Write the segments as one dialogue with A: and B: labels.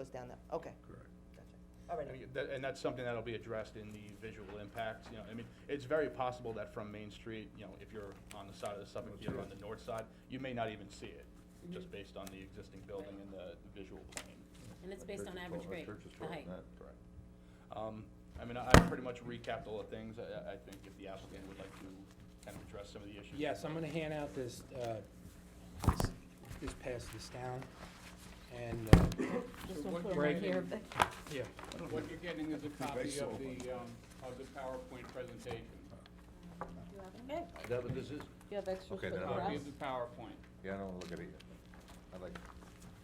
A: goes down that, okay,
B: Correct.
A: gotcha. All right,
C: And that- and that's something that'll be addressed in the visual impacts, you know, I mean, it's very possible that from Main Street, you know, if you're on the side of the Suffolk,
B: That's
C: you're
B: right.
C: on the north side, you may not even see it,
D: Mm-hmm.
C: just based on the existing building and the the visual plane.
E: And it's based on average
F: uh,
E: grade, the height.
C: Correct. Um, I mean, I I pretty much recapped all the things, I, I think if the applicant would like to kind of address some of the issues.
G: Yes, I'm gonna hand out this, uh, this- this, pass this down, and, uh,
E: Just
D: So
E: don't put
D: what
E: them
G: you're
E: right here.
D: making-
E: but-
G: yeah,
D: What you're getting is a copy
B: Based
D: of
B: on
D: the, um, of the PowerPoint presentation.
E: Okay,
F: Is that what this is?
E: you have extras
F: Okay,
E: for
F: then I'm
E: us?
D: Copy of the PowerPoint.
F: Yeah, I don't look at it yet. I like,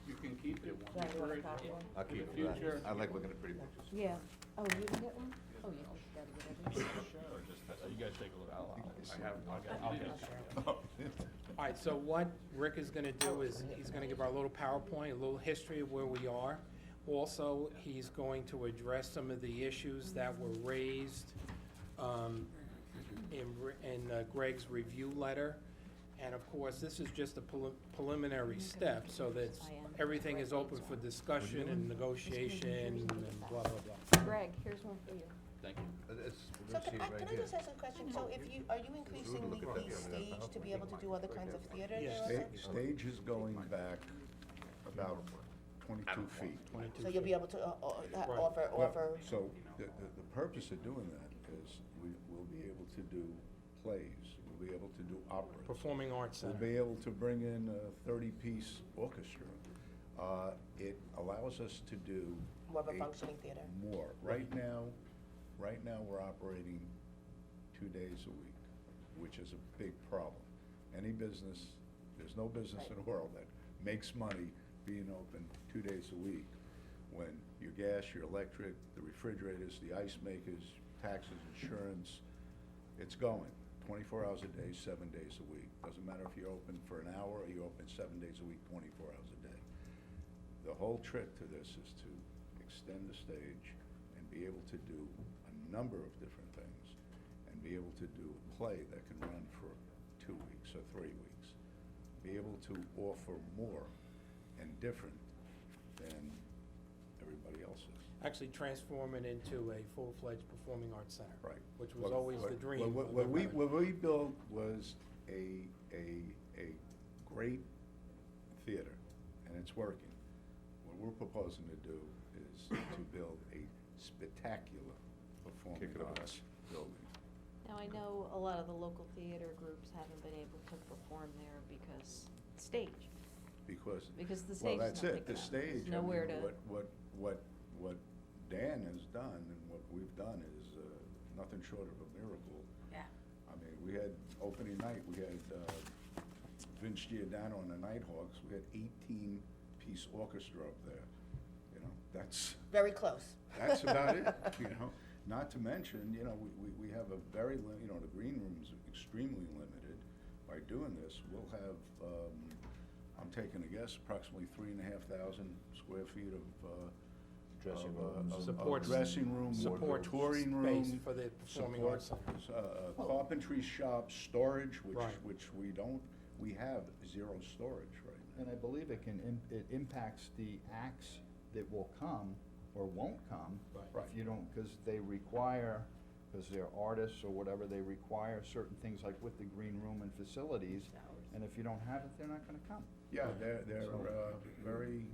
D: You can keep it.
E: Yeah, you
D: refer
E: want a
D: it
E: copy one?
F: I'll
D: for
F: keep
D: the
F: it.
D: future.
F: I like looking at pretty pictures.
E: Yeah, oh, you didn't get one? Oh, yeah, oh, you gotta get it.
C: So uh, You guys take a look, I'll, I'll- I have, I'll get, Oh. I'll get.
G: all right, so what Rick is gonna do is, he's gonna give our little PowerPoint, a little history of where we are. Also, he's going to address some of the issues that were raised, um, in, Re- in uh, Greg's review letter. And of course, this is just a prelim- preliminary step, so that everything is open for discussion and negotiation and blah, blah, blah.
E: Greg, here's one for you.
C: Thank you.
F: It's- we're
A: So
F: gonna see
A: can
F: it
A: I,
F: right
A: can I
F: here.
A: just ask a question? So if you, are you increasing
F: look at that
A: the the
F: the other day.
A: stage to be able to do other kinds of theater there
G: Yes.
A: also?
B: Stage is going back about twenty-two feet.
A: So you'll be able to uh, o- uh,
G: Right.
A: offer,
B: Well,
A: offer,
B: So the, the, the purpose of doing that is we will be able to do plays, we'll be able to do operas.
G: Performing Arts Center.
B: We'll be able to bring in a thirty-piece orchestra. Uh, it allows us to do.
A: more of a
B: a-
A: functioning theater?
B: More. Right now, right now, we're operating two days a week, which is a big problem. Any business, there's no business in the world that makes money being open two days a week when your gas, your electric, the refrigerators, the ice makers, taxes, insurance, it's going. Twenty-four hours a day, seven days a week. Doesn't matter if you're open for an hour or you're open seven days a week, twenty-four hours a day the whole trick to this is to extend the stage and be able to do a number of different things and be able to do a play that can run for two weeks or three weeks. Be able to offer more and different than everybody else is.
G: actually transform it into a full-fledged performing arts center.
B: Right.
G: Which was
B: What-
G: always the
B: what-
G: dream.
B: what-
G: of
B: What, what we,
G: everybody.
B: what we built was a, a, a great theater, and it's working. What we're proposing to do is to build a spectacular performing
F: Kick it up.
B: arts building.
H: Now, I know a lot of the local theater groups haven't been able to perform there because stage.
B: Because.
H: Because the stage
B: Well,
H: is
B: that's
H: not
B: it, the
H: big enough. There's
B: stage, I mean,
H: nowhere to-
B: what, what, what, what Dan has done and what we've done is, uh, nothing short of a miracle.
E: Yeah.
B: I mean, we had opening night, we had, uh, Vince Giordano and the Nighthawks, we had eighteen piece orchestra up there, you know, that's,
A: Very close.
B: that's about it, you know? Not to mention, you know, we, we, we have a very, li- you know, the green room's extremely limited. By doing this, we'll have, um, I'm taking a guess, approximately three and a half thousand square feet of, uh,
F: Dressing
B: of, uh,
F: rooms.
B: of- of
G: Support s-
B: Dressing room,
G: support
B: touring room.
G: space for the performing
B: support,
G: arts center.
B: s- Uh, uh, carpentry shop, storage, which,
G: Right.
B: which we don't, we have zero storage right now.
I: And I believe it can, im- it impacts the acts that will come or won't come.
G: Right.
I: If you don't, because they require, because they're artists or whatever, they require certain things like with the green room and facilities. And if you don't have it, they're not gonna come.
B: Yeah, they're, they're, uh, very,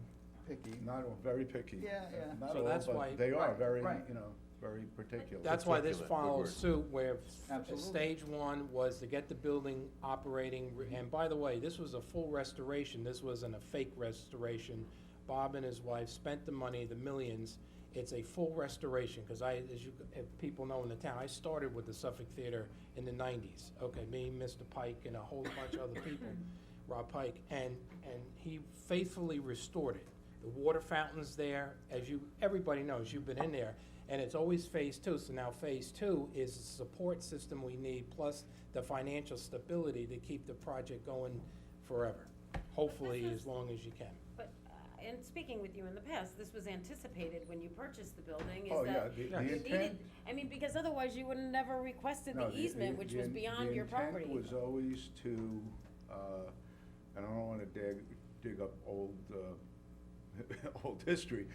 I: Picky.
B: not, all- very picky. Uh,
I: Yeah, yeah.
B: Not
G: So
B: all,
G: that's
B: but
G: why-
B: they are
I: Right,
B: very,
I: right.
B: you know, very particular.
G: That's why this
F: Articulate, good
G: follows
F: word.
G: suit where f-
I: Absolutely.
G: stage one was to get the building operating. re- And by the way, this was a full restoration. This wasn't a fake restoration. Bob and his wife spent the money, the millions. It's a full restoration, because I, as you, if people know in the town, I started with the Suffolk Theater in the nineties. Okay, me, Mr. Pike, and a whole bunch of other people, Rob Pike, and, and he faithfully restored it. The water fountain's there, as you, everybody knows, you've been in there, and it's always phase two. So now phase two is the support system we need, plus the financial stability to keep the project going forever. Hopefully, as long as you can.
J: But, uh, and speaking with you in the past, this was anticipated when you purchased the building,
B: Oh,
J: is
B: yeah,
J: that
B: the,
G: Yeah.
B: the
J: you
B: intent.
J: needed, I mean, because otherwise you would have never requested
B: no,
J: the easement, which
B: the
J: was
B: in-
J: beyond your property.
B: The intent was always to, uh, and I don't wanna dig, dig up old, uh, old history,